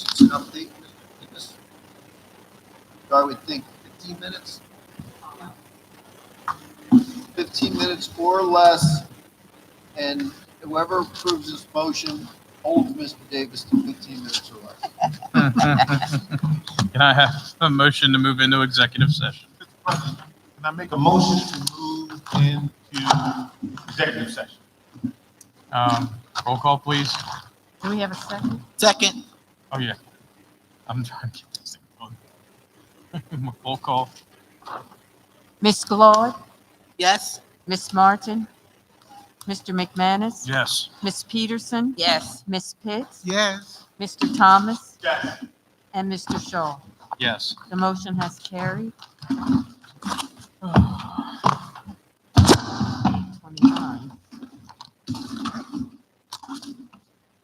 something, it just, I would think fifteen minutes. Fifteen minutes or less, and whoever approves this motion holds Mr. Davis to fifteen minutes or less. Can I have a motion to move into executive session? Can I make a motion to move into executive session? Um, roll call, please. Do we have a second? Second, Oh, yeah. I'm trying to get this thing going. Roll call. Ms. Claude, yes? Ms. Martin, Mr. McManus, Yes. Ms. Peterson, Yes. Ms. Pitts, Yes. Mr. Thomas, Yes. and Mr. Shaw. Yes. The motion has carried.